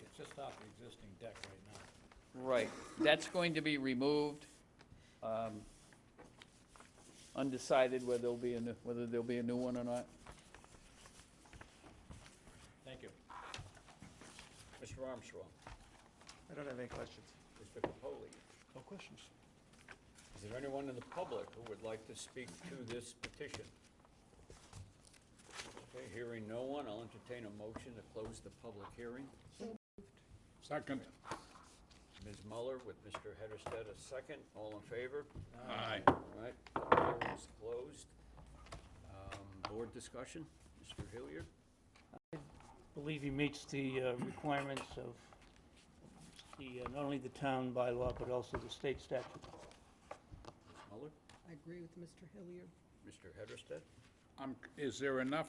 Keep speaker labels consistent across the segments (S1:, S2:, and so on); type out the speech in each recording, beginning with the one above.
S1: It's just off the existing deck right now.
S2: Right, that's going to be removed. um, Undecided whether there'll be a, new- whether there'll be a new one or not.
S1: Thank you. Mr. Armstrong,
S3: I don't have any questions.
S1: Mr. Capoli,
S3: No questions.
S1: is there anyone in the public who would like to speak to this petition? Okay, hearing no one, I'll entertain a motion to close the public hearing.
S4: Second.
S1: Ms. Muller with Mr. Hedersted, a second. All in favor?
S4: Aye.
S1: All right, public hearing's closed. Um, Board discussion, Mr. Hilliard?
S5: believe he meets the uh, requirements of the, uh, not only the town bylaw, but also the state statute.
S1: Ms. Muller?
S6: I agree with Mr. Hilliard.
S1: Mr. Hedersted?
S4: Um, is there enough,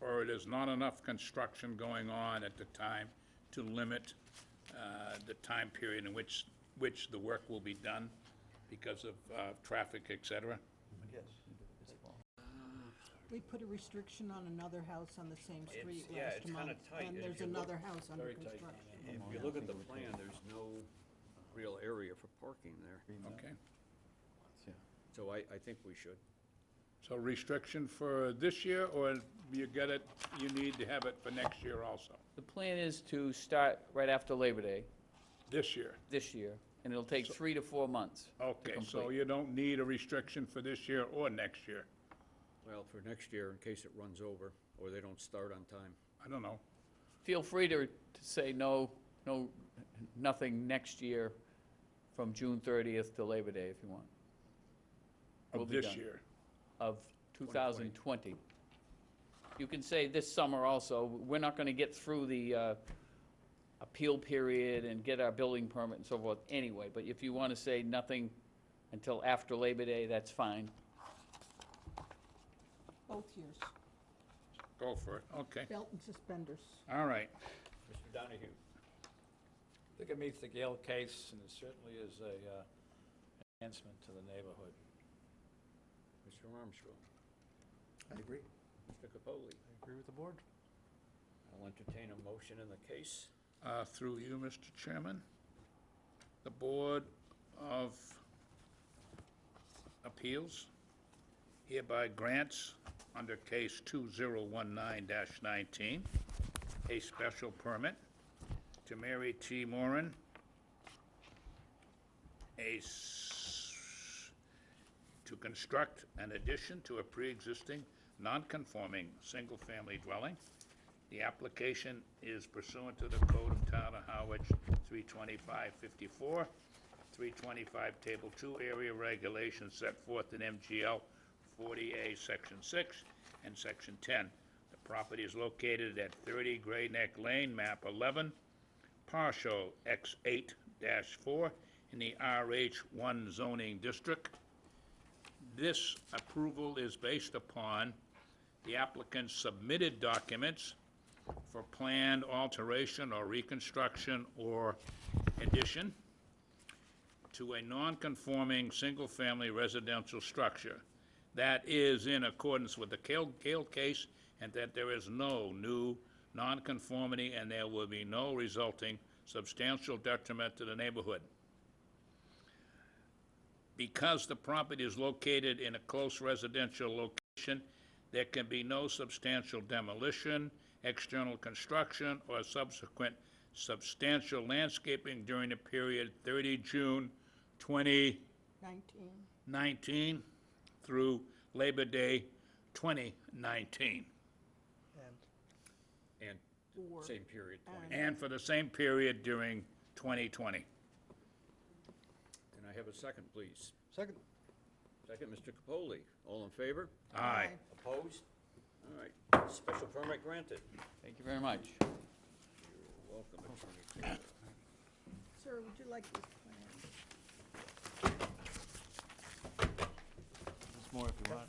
S4: or it is not enough construction going on at the time to limit, uh, the time period in which, which the work will be done because of, uh, traffic, et cetera?
S6: We put a restriction on another house on the same street
S1: It's- yeah,
S6: last
S1: it's
S6: month.
S1: kinda tight, and
S6: And
S1: if
S6: there's
S1: you look-
S6: another house under
S1: Very tight.
S6: construction.
S1: If you look at the plan, there's no real area for parking there.
S4: Okay.
S1: So I, I think we should.
S4: So restriction for this year, or you get it, you need to have it for next year also?
S2: The plan is to start right after Labor Day
S4: This year?
S2: this year, and it'll take three to four months. to
S4: Okay, so
S2: complete.
S4: you don't need a restriction for this year or next year?
S1: Well, for next year, in case it runs over, or they don't start on time.
S4: I don't know.
S2: Feel free to, to say no, no, nothing next year from June 30th to Labor Day if you want, We'll
S4: Of
S2: be
S4: this
S2: done.
S4: year?
S2: of 2020. You can say this summer also, we're not going to get through the uh, appeal period and get our building permit and so forth anyway, but if you want to say nothing until after Labor Day, that's fine.
S6: Both years,
S4: Go for it, okay.
S6: belt and suspenders.
S4: All right.
S1: Mr. Donahue?
S7: I think it meets the Gale case, and it certainly is a uh, enhancement to the neighborhood.
S1: Mr. Armstrong?
S3: I agree.
S1: Mr. Capoli?
S3: I agree with the board.
S1: I'll entertain a motion in the case.
S4: Uh, Through you, Mr. Chairman. The Board of Appeals hereby grants, under case 2019-19, a special permit to Mary T. Moran, a, s- to construct an addition to a pre-existing non-conforming single-family dwelling the application is pursuant to the Code of Town of Howard, 32554, 325 Table 2 Area Regulations set forth in MGL 40A, Section 6 and Section 10. The property is located at 30 Gray Neck Lane, map 11, partial X8-4 in the RH1 zoning district. This approval is based upon the applicant's submitted documents for planned alteration or reconstruction or addition to a non-conforming single-family residential structure that is in accordance with the Kale, Kale case and that there is no new nonconformity and there will be no resulting substantial detriment to the neighborhood because the property is located in a close residential location, there can be no substantial demolition, external construction, or subsequent substantial landscaping during the period 30 June 2019
S6: Nineteen,
S4: through Labor Day 2019,
S3: And
S1: And
S6: Or-
S1: same period, 20.
S4: and for the same period during 2020.
S1: Can I have a second, please?
S3: second,
S1: Second, Mr. Capoli. All in favor?
S4: Aye.
S1: Opposed? All right. Special permit granted.
S2: Thank you very much.
S1: You're welcome, Attorney
S6: sir, would you like this plan?
S3: there's more if you want.